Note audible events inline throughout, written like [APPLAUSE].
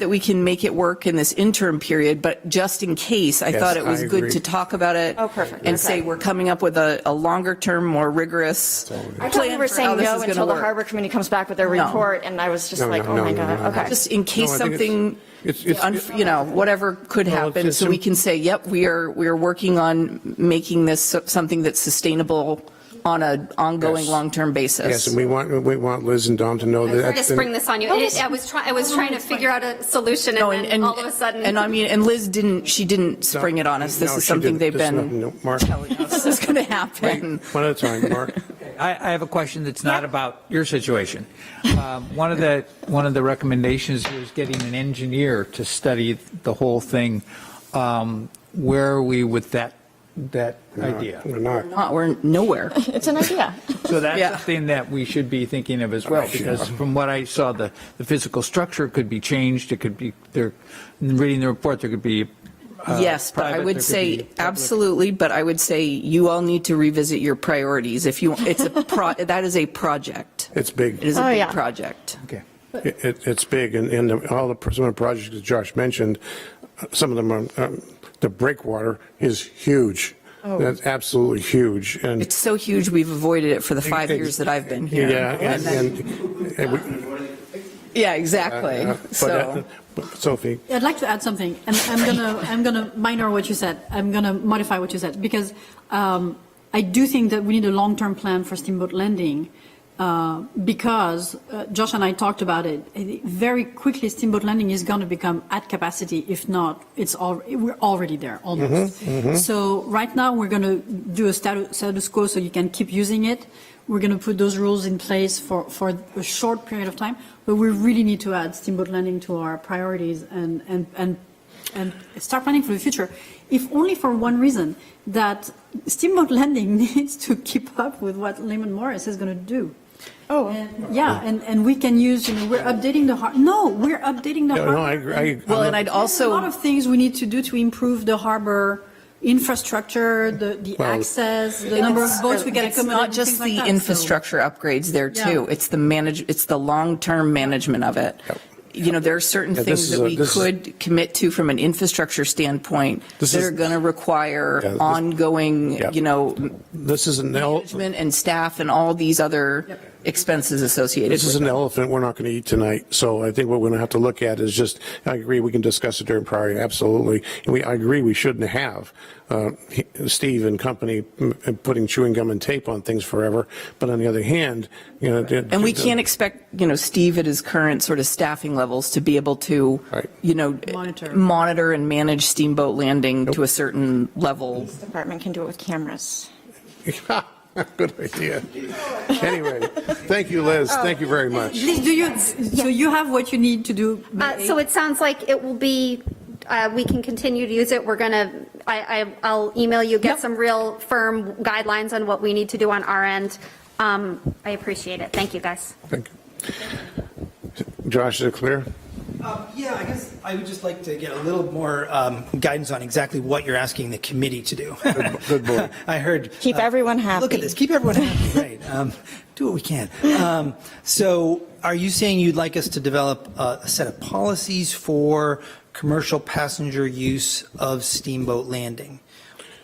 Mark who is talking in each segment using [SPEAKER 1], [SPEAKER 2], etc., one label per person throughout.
[SPEAKER 1] that we can make it work in this interim period, but just in case, I thought it was
[SPEAKER 2] I
[SPEAKER 1] good
[SPEAKER 2] agree.
[SPEAKER 1] to talk about it.
[SPEAKER 3] Oh, perfect.
[SPEAKER 1] And say
[SPEAKER 3] Okay.
[SPEAKER 1] we're coming up with a, a longer term, more rigorous
[SPEAKER 3] I
[SPEAKER 1] plan
[SPEAKER 3] thought we were
[SPEAKER 1] for how
[SPEAKER 3] saying
[SPEAKER 1] this
[SPEAKER 3] no
[SPEAKER 1] is gonna
[SPEAKER 3] until the
[SPEAKER 1] work.
[SPEAKER 3] harbor committee comes back with their
[SPEAKER 1] No.
[SPEAKER 3] report, and I was just
[SPEAKER 2] No,
[SPEAKER 3] like,
[SPEAKER 2] no,
[SPEAKER 3] oh
[SPEAKER 2] no,
[SPEAKER 3] my
[SPEAKER 2] no, no, no.
[SPEAKER 3] God, okay.
[SPEAKER 1] Just in case
[SPEAKER 2] No, I think it's-
[SPEAKER 1] something,
[SPEAKER 2] it's- it's-
[SPEAKER 1] unf- you know, whatever could
[SPEAKER 2] Well, it's-
[SPEAKER 1] happen, so
[SPEAKER 2] it's-
[SPEAKER 1] we can say, yep, we are, we are working on making this so- something that's sustainable on a ongoing,
[SPEAKER 2] Yes.
[SPEAKER 1] long-term basis.
[SPEAKER 2] Yes, and we want, we want Liz and Dom to know that.
[SPEAKER 4] Sorry to
[SPEAKER 2] that's
[SPEAKER 4] spring
[SPEAKER 2] been-
[SPEAKER 4] this on you. It- I was trying, I was trying to figure out a solution
[SPEAKER 1] No,
[SPEAKER 4] and then all of a sudden.
[SPEAKER 1] And I mean, and Liz didn't, she didn't spring it on us. This
[SPEAKER 2] No,
[SPEAKER 1] is
[SPEAKER 2] she
[SPEAKER 1] something
[SPEAKER 2] didn't.
[SPEAKER 1] they've
[SPEAKER 2] This is
[SPEAKER 1] been
[SPEAKER 2] nothing new. Mark, [LAUGHS]
[SPEAKER 1] telling [LAUGHS] us is going to happen.
[SPEAKER 2] one at a time,
[SPEAKER 1] [LAUGHS]
[SPEAKER 2] Mark.
[SPEAKER 5] I, I have a question that's not about your situation. Um, One of the, one of the recommendations is getting an engineer to study the whole thing. Um, Where are we with that, that idea?
[SPEAKER 2] We're not.
[SPEAKER 1] Not, we're nowhere.
[SPEAKER 3] It's an idea.
[SPEAKER 5] So that's
[SPEAKER 1] Yeah.
[SPEAKER 5] something that we should be thinking of as well, because from what I saw, the, the physical structure could be changed, it could be, they're, reading the report, there could be. uh,
[SPEAKER 1] Yes, but I
[SPEAKER 5] private,
[SPEAKER 1] would
[SPEAKER 5] there could be
[SPEAKER 1] say,
[SPEAKER 5] public.
[SPEAKER 1] absolutely, but I would say you all need to revisit your priorities. If you, it's a,
[SPEAKER 2] [LAUGHS]
[SPEAKER 1] pro that is a project.
[SPEAKER 2] It's big.
[SPEAKER 1] It is a
[SPEAKER 3] Oh,
[SPEAKER 1] big
[SPEAKER 3] yeah.
[SPEAKER 1] project.
[SPEAKER 5] Okay.
[SPEAKER 2] It- It, it's big, and, and the- all the, pr- some of the projects that Josh mentioned, uh, some of them are, um, the breakwater is huge. That's absolutely huge, and.
[SPEAKER 1] Oh. It's so huge, we've avoided it for the five years that I've been here.
[SPEAKER 2] Yeah,
[SPEAKER 1] And
[SPEAKER 2] and,
[SPEAKER 1] then-
[SPEAKER 2] and- and we-
[SPEAKER 1] Yeah,
[SPEAKER 2] uh,
[SPEAKER 1] exactly.
[SPEAKER 2] but, uh,
[SPEAKER 1] So,
[SPEAKER 2] but Sophie,
[SPEAKER 6] I'd like to add something, and I'm gonna, I'm gonna minor what you said. I'm gonna modify what you said because um, I do think that we need a long-term plan for Steamboat Landing uh, because uh, Josh and I talked about it. Uh, Very quickly, Steamboat Landing is going to become at capacity. If not, it's all we're already there almost. So right now, we're going to do a status, status quo so you can keep using it. We're going to put those rules in place for, for a short period of time, but we really need to add Steamboat Landing to our priorities and, and, and, and start planning for the future, if only for one reason, that Steamboat [LAUGHS] Landing needs to keep up with what Lehman Morris is going to do. Oh. Yeah, and, and we can use, you know, we're updating the, har- no, we're updating the.
[SPEAKER 2] no, no,
[SPEAKER 6] harbor.
[SPEAKER 2] I agree. I-
[SPEAKER 1] well,
[SPEAKER 2] I'm
[SPEAKER 1] and I'd
[SPEAKER 2] not-
[SPEAKER 6] There's a lot
[SPEAKER 1] also,
[SPEAKER 6] of things we need to do to improve the harbor infrastructure, the, the
[SPEAKER 2] Well-
[SPEAKER 6] access, the number of boats we can
[SPEAKER 1] it's
[SPEAKER 6] accommodate.
[SPEAKER 1] not just
[SPEAKER 6] things like
[SPEAKER 1] the
[SPEAKER 6] that. So-
[SPEAKER 1] infrastructure upgrades there
[SPEAKER 6] Yeah.
[SPEAKER 1] too. It's the manage, it's the long-term management of it.
[SPEAKER 2] Yep.
[SPEAKER 1] You know, there are certain
[SPEAKER 2] Yeah,
[SPEAKER 1] things
[SPEAKER 2] this is
[SPEAKER 1] that
[SPEAKER 2] a-
[SPEAKER 1] we
[SPEAKER 2] this is-
[SPEAKER 1] could commit to from an infrastructure standpoint
[SPEAKER 2] This
[SPEAKER 1] that
[SPEAKER 2] is-
[SPEAKER 1] are going to require
[SPEAKER 2] Yeah, this-
[SPEAKER 1] ongoing,
[SPEAKER 2] Yep.
[SPEAKER 1] you know,
[SPEAKER 2] This is an el,
[SPEAKER 1] management and staff and all these other
[SPEAKER 6] Yep.
[SPEAKER 1] expenses associated
[SPEAKER 2] this
[SPEAKER 1] with
[SPEAKER 2] is an elephant we're not going to eat tonight, so I think what we're going to have to look at is just, I agree, we can discuss it during priority, absolutely. And we, I agree, we shouldn't have uh, he- Steve and company mm, putting chewing gum and tape on things forever, but on the other hand, you know.
[SPEAKER 1] And we
[SPEAKER 2] [LAUGHS]
[SPEAKER 1] can't expect, you know, Steve at his current sort of staffing levels to be able to,
[SPEAKER 2] Right.
[SPEAKER 1] you know,
[SPEAKER 6] Monitor.
[SPEAKER 1] monitor and manage Steamboat Landing to a certain level.
[SPEAKER 3] Department can do it with cameras.
[SPEAKER 1] e-,
[SPEAKER 2] Good idea. Anyway, thank you, Liz, thank you very much.
[SPEAKER 6] Liz, do you, so you have what you need to do?
[SPEAKER 4] Uh, So it sounds like it will be, uh, we can continue to use it. We're going to, I, I- I'll email you, get some real firm guidelines on what we need to do on our end. Um, I appreciate it. Thank you, guys.
[SPEAKER 2] Thank you. Josh, is it clear?
[SPEAKER 7] Um, Yeah, I guess I would just like to get a little more um, guidance on exactly what you're asking the committee to do.
[SPEAKER 2] good boy.
[SPEAKER 7] [LAUGHS] I heard.
[SPEAKER 3] Keep
[SPEAKER 7] uh,
[SPEAKER 3] everyone
[SPEAKER 7] Look
[SPEAKER 3] happy.
[SPEAKER 7] at this, keep everyone happy, [LAUGHS] right. Um, Do what we can. Um, So are you saying you'd like us to develop a a set of policies for commercial passenger use of steamboat landing?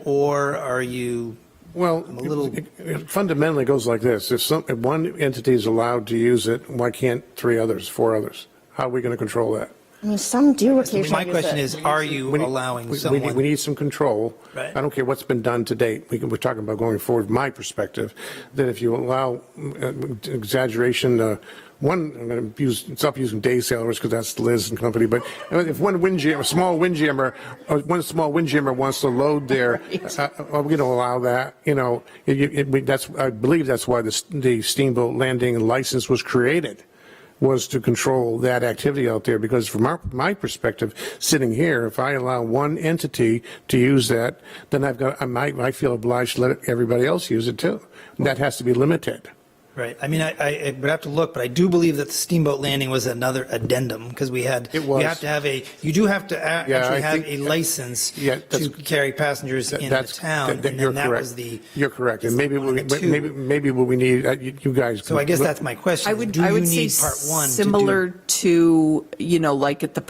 [SPEAKER 7] Or are you?
[SPEAKER 2] Well,
[SPEAKER 7] I'm a little-
[SPEAKER 2] it- it fundamentally goes like this. If some, if one entity is allowed to use it, why can't three others, four others? How are we going to control that?
[SPEAKER 3] I mean, some do occasionally.
[SPEAKER 7] My
[SPEAKER 3] use
[SPEAKER 7] question
[SPEAKER 3] it.
[SPEAKER 7] is, are you
[SPEAKER 2] We need-
[SPEAKER 7] allowing
[SPEAKER 2] we-
[SPEAKER 7] someone?
[SPEAKER 2] We need, we need some control.
[SPEAKER 7] Right.
[SPEAKER 2] I don't care what's been done to date. We can, we're talking about going forward, my perspective, that if you allow mm, uh, exaggeration, uh, one, I'm going to use, stop using day sailors because that's Liz and company, but uh, if one windjammer, small windjammer, uh, one small windjammer wants to load
[SPEAKER 7] [LAUGHS]
[SPEAKER 2] there, uh, are we going to allow that? You know, it, it, we- that's, I believe that's why the s- the steamboat landing license was created was to control that activity out there, because from our, my perspective, sitting here, if I allow one entity to use that, then I've got, I might, I feel obliged to let everybody else use it too. That has to be limited.
[SPEAKER 7] Right. I mean, I, I I would have to look, but I do believe that the steamboat landing was another addendum because we had.
[SPEAKER 2] It was.
[SPEAKER 7] You have to have a, you do have to a-
[SPEAKER 2] Yeah, I
[SPEAKER 7] actually have
[SPEAKER 2] think-
[SPEAKER 7] a license
[SPEAKER 2] Yeah,
[SPEAKER 7] to
[SPEAKER 2] that's-
[SPEAKER 7] carry passengers in the
[SPEAKER 2] That's-
[SPEAKER 7] town.
[SPEAKER 2] that- that-
[SPEAKER 7] and
[SPEAKER 2] you're
[SPEAKER 7] then that
[SPEAKER 2] correct.
[SPEAKER 7] was the-
[SPEAKER 2] You're correct,
[SPEAKER 7] is
[SPEAKER 2] and
[SPEAKER 7] the
[SPEAKER 2] maybe,
[SPEAKER 7] one
[SPEAKER 2] we-
[SPEAKER 7] and the two.
[SPEAKER 2] maybe, maybe what we need, uh, you you guys.
[SPEAKER 7] So I guess that's my question.
[SPEAKER 1] I
[SPEAKER 7] is
[SPEAKER 1] would,
[SPEAKER 7] do
[SPEAKER 1] I
[SPEAKER 7] you
[SPEAKER 1] would say
[SPEAKER 7] need part one to do-
[SPEAKER 1] similar to, you know, like at the